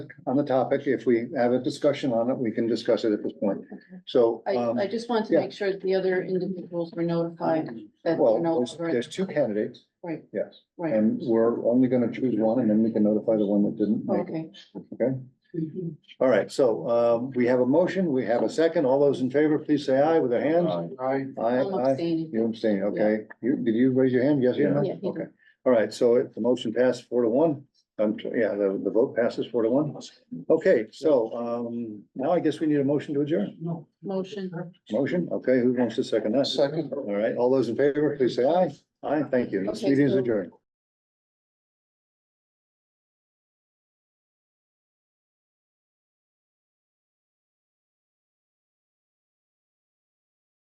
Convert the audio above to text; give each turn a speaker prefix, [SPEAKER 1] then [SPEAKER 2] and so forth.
[SPEAKER 1] on the topic. If we have a discussion on it, we can discuss it at this point. So,
[SPEAKER 2] I,
[SPEAKER 1] um,
[SPEAKER 2] I just want to
[SPEAKER 1] yeah.
[SPEAKER 2] make sure that the other individuals were notified that
[SPEAKER 1] well,
[SPEAKER 2] they're no
[SPEAKER 1] there's-
[SPEAKER 2] longer,
[SPEAKER 1] there's two candidates,
[SPEAKER 2] right,
[SPEAKER 1] yes,
[SPEAKER 2] right,
[SPEAKER 1] and we're only gonna choose one and then we can notify the one that didn't make it.
[SPEAKER 2] okay.
[SPEAKER 1] All right, so, um, we have a motion, we have a second. All those in favor, please say aye with their hands.
[SPEAKER 3] Aye.
[SPEAKER 1] Aye,
[SPEAKER 2] I'm
[SPEAKER 1] aye. You
[SPEAKER 2] abstaining.
[SPEAKER 1] abstain, okay. You, did you raise your hand? Yes, you
[SPEAKER 2] Yeah, he did.
[SPEAKER 1] Okay. All right, so it- the motion passed four to one. Um, yeah, the, the vote passes four to one. Okay, so, um, now I guess we need a motion to adjourn.
[SPEAKER 2] Motion.
[SPEAKER 1] Motion, okay, who wants to second that?
[SPEAKER 3] Second.
[SPEAKER 1] All right, all those in favor, please say aye. Aye, thank you. This
[SPEAKER 2] Okay,
[SPEAKER 1] meeting is
[SPEAKER 2] so-
[SPEAKER 1] adjourned.